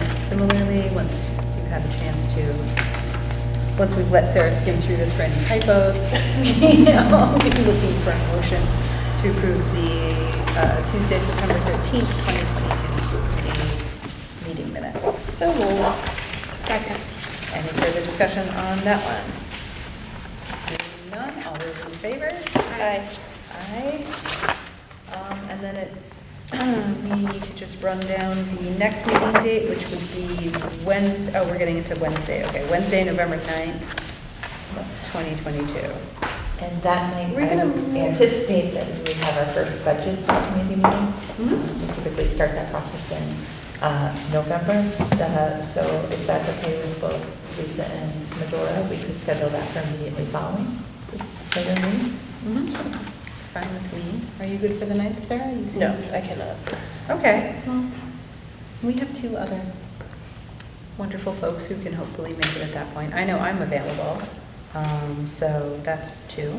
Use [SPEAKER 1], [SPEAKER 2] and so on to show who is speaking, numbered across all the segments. [SPEAKER 1] regularly, once we've had a chance to, once we've let Sarah skim through this for any typos, you know, I'll be looking for a motion to approve the uh, Tuesday, September 13th, 2022 school committee meeting minutes. So moved. Second. Any further discussion on that one? Seeing none, all those in favor? Aye. Aye. Um, And then it, we need to just run down the next meeting date, which would be Wednesday, oh, we're getting into Wednesday, okay, Wednesday, November 9th, 2022.
[SPEAKER 2] And that night,
[SPEAKER 1] We're
[SPEAKER 2] I
[SPEAKER 1] gonna
[SPEAKER 2] would
[SPEAKER 1] move-
[SPEAKER 2] anticipate that we would have our first budget subcommittee meeting.
[SPEAKER 3] Mm-hmm.
[SPEAKER 1] Mhm.
[SPEAKER 2] We typically start that process in uh, November, Uh, so if that's okay with both Lisa and Medora, we could schedule that for immediately following this regular meeting.
[SPEAKER 1] It's fine with me. Are you good for the 9th, Sarah? You seem-
[SPEAKER 3] Mm-hmm. No, I cannot.
[SPEAKER 1] Okay. Well, We have two other wonderful folks who can hopefully make it at that point. I know I'm available, um, so that's two,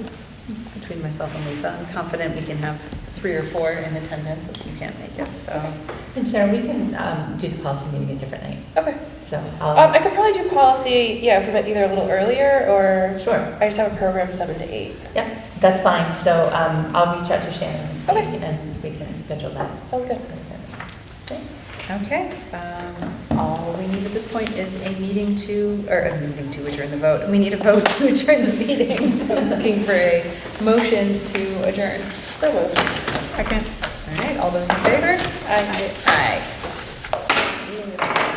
[SPEAKER 1] between myself and Lisa. I'm confident we can have three or four in attendance if you can't make it, so.
[SPEAKER 2] And Sarah, we can um, do the policy meeting a different night,
[SPEAKER 3] Okay.
[SPEAKER 2] so
[SPEAKER 3] Um, I
[SPEAKER 2] I'll,
[SPEAKER 3] could probably do policy, yeah, if we met either a little earlier or.
[SPEAKER 2] sure,
[SPEAKER 3] I just have a program seven to eight.
[SPEAKER 2] yeah, that's fine, so um, I'll reach out to Shannon and see,
[SPEAKER 3] Okay.
[SPEAKER 2] and we can schedule that.
[SPEAKER 3] Sounds good.
[SPEAKER 2] Okay.
[SPEAKER 1] Okay, um, all we need at this point is a meeting to, or a meeting to adjourn the vote. We need a vote to adjourn the meeting, so I'm looking for a motion to adjourn.
[SPEAKER 3] So moved.
[SPEAKER 1] Second. All right, all those in favor? Aye. Aye. Meeting is adjourned.